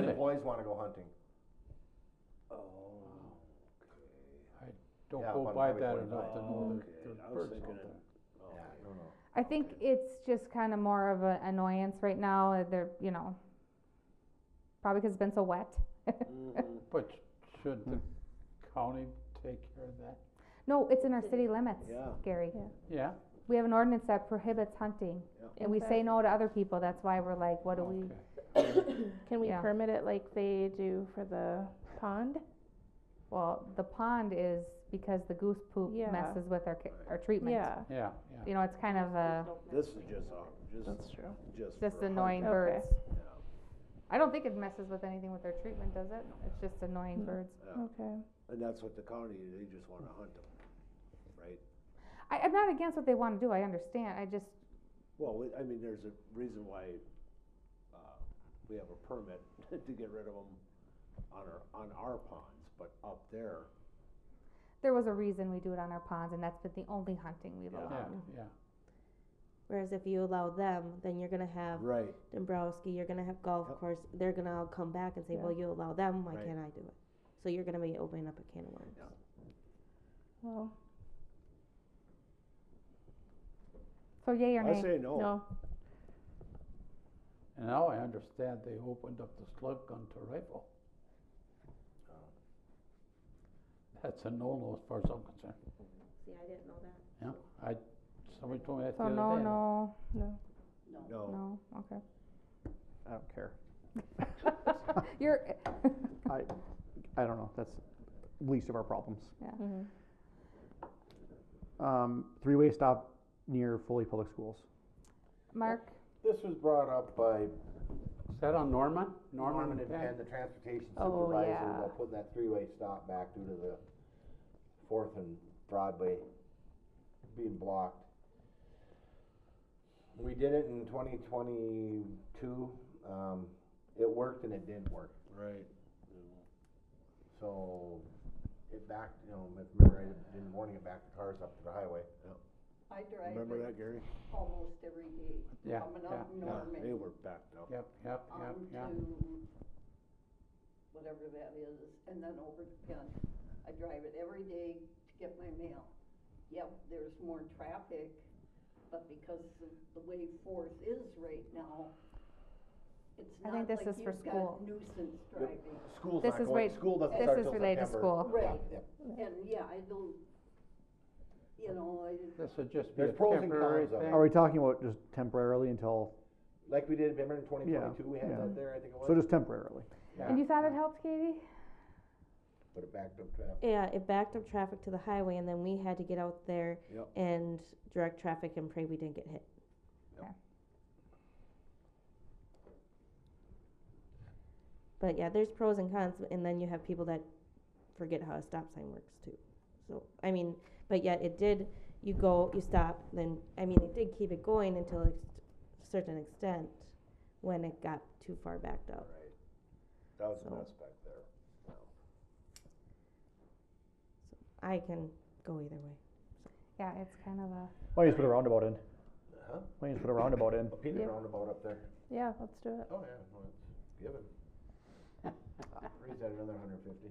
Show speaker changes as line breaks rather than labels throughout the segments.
employees wanna go hunting.
Oh,
Don't
Yeah,
go
up on
by
Highway
that
45.
enough to know
okay.
they're,
I
they're
was
birds
thinking,
out
of-
there.
oh,
Yeah,
okay.
no, no.
I think it's just kind of more of an annoyance right now, uh, they're, you know, probably because it's been so wet.
Mm-hmm.
Mhm.
But should the county take care of that?
No, it's in our city limits,
Yeah.
Gary.
Yeah,
We have an ordinance that prohibits hunting,
Yeah. Oh,
and we say no to other people, that's why we're like, what do we?
okay.
Can we
Yeah.
permit it like they do for the pond?
Well, the pond is because the goose poop
Yeah.
messes with our, ca- our treatment.
Yeah,
Yeah, yeah.
You know, it's kind of a,
This is just, a- just,
that's true.
just.
just
for
annoying
hunting. Okay.
birds. I don't think it messes with anything with their treatment, does it? It's just
Mm.
annoying birds.
hunting,
Okay.
yeah. And that's what the county, they just wanna hunt them, right?
I, I'm not against what they wanna do, I understand, I just,
Well, we- I mean, there's a reason why, uh, we have a permit to get rid of them on our, on our ponds, but up there,
there was a reason we do it on our ponds, and that's been the only hunting we've
Yeah.
Yeah,
allowed.
yeah.
Whereas if you allow them, then you're gonna have
right,
Dombrowski, you're gonna have golf
Yep.
course. They're gonna all come back and say,
Yeah.
"Well, you allow them. Why
Right.
can't I do it?" So you're gonna be opening up a can of worms.
Yeah.
Well,
So yay or
I
nay?
say no,
no.
And now I understand they opened up the slug gun to rifle.
Oh.
That's a no-no as far as I'm concerned.
See, I didn't know that.
Yeah, I, somebody told me that the
So
other day.
no,
and I-
no,
no,
no, okay.
I don't care.
You're,
I don't know. That's least of our problems.
Mhm.
Um, three-way stop near Foley Public Schools.
Mark,
This was brought up by
Is that on Norman?
Norman and,
Penn?
and the transportation
Oh,
supervisor
yeah.
about putting that three-way stop back due to the Fourth and Broadway being blocked. We did it in twenty twenty-two, um, it worked and it didn't work,
right.
so it backed, you know, if you remember, I didn't warn you, back the cars up to the highway.
I drive
Remember
it
that, Gary?
almost every day,
Yeah,
coming
yeah,
up
Yeah, They
Norman
were backed up.
Yep, yep, yep,
Um,
onto
yep.
whatever that is, and then over to Penn. I drive it every day to get my mail. Yep, there's more traffic, but because of the way Fourth is right now, it's
I
not
think
like
this is for
you've
school.
got nuisance driving.
School's
This
not
is
going,
wait-
school doesn't
this
start
is
till
related to
September.
school.
Yeah,
Right.
yeah.
And, yeah, I don't, you know, I,
This would just be a
There's pros and
temporary
cons of it.
thing.
Are we talking about just temporarily until?
Like we did, remember in twenty twenty-two, we had
yeah.
that there, I think it was?
So just temporarily.
and you thought it helped, Katie?
But it backed up traffic.
Yeah, it backed up traffic to the highway, and then we had to get out there
Yep.
and direct traffic and pray we didn't get hit.
Yep.
But yeah, there's pros and cons, and then you have people that forget how a stop sign works too. So I mean, but yet it did. You go, you stop, then I mean, it did keep it going until a certain extent when it got too far backed up.
Right. That was a
So-
mess back there.
I can go either way.
Yeah, it's kind of a,
Why don't you just put a roundabout in?
Huh?
Why don't you just put a roundabout in?
A peanut
Yeah.
roundabout up there.
Yeah, let's do it.
Oh, yeah, well, it's given. Raise that another hundred fifty.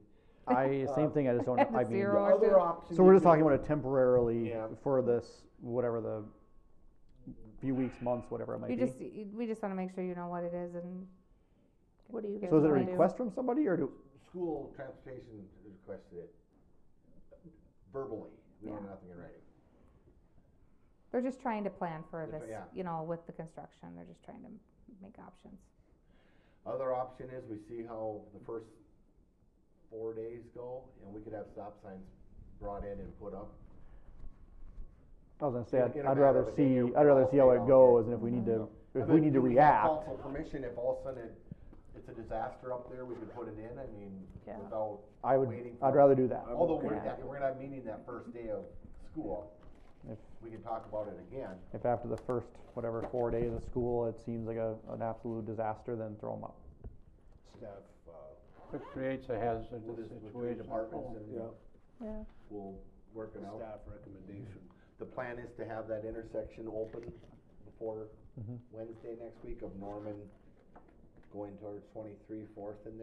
I same thing. I just don't. know. I mean,
Zero.
The
or
other
two.
option.
so we're
you
just talking
could-
about it temporarily
Yeah.
for this whatever the few weeks, months, whatever it might
you
be.
just, you- we just wanna make sure you know what it is and.
What do you
give
so is
us
it a
an idea.
request from somebody or do?
School transportation requested it verbally, we don't have nothing in writing.
They're just trying to plan for
Different-
this,
yeah.
you know, with the construction, they're just trying to m- make options.
Other option is we see how the first four days go, and we could have stop signs brought in and put up.
I was gonna say
In a-
I'd,
in a
I'd
matter
rather
of a
see.
day,
I'd rather
I'll
see how
say
it
I'll
goes, and if we need to,
Mm-hmm.
if
I
we
mean,
need to
do have
react.
Council permission, if all of a sudden it, it's a disaster up there, we could put it in, I mean,
Yeah.
without
I would.
waiting for.
I'd rather do that.
I'm
Although
okay
we're,
with
not- we're not meeting that first day of school,
If-
we can talk about it again.
If after the first, whatever, four days of school, it seems like a, an absolute disaster, then throw them up.
Staff, uh,
It creates a hazard
With his, with three
situation.
departments and
yeah,
Yeah.
we'll work it out.
staff recommendation.
The plan is to have that intersection open
Mm-hmm.
before Wednesday next week of Norman going towards twenty-three, fourth and there.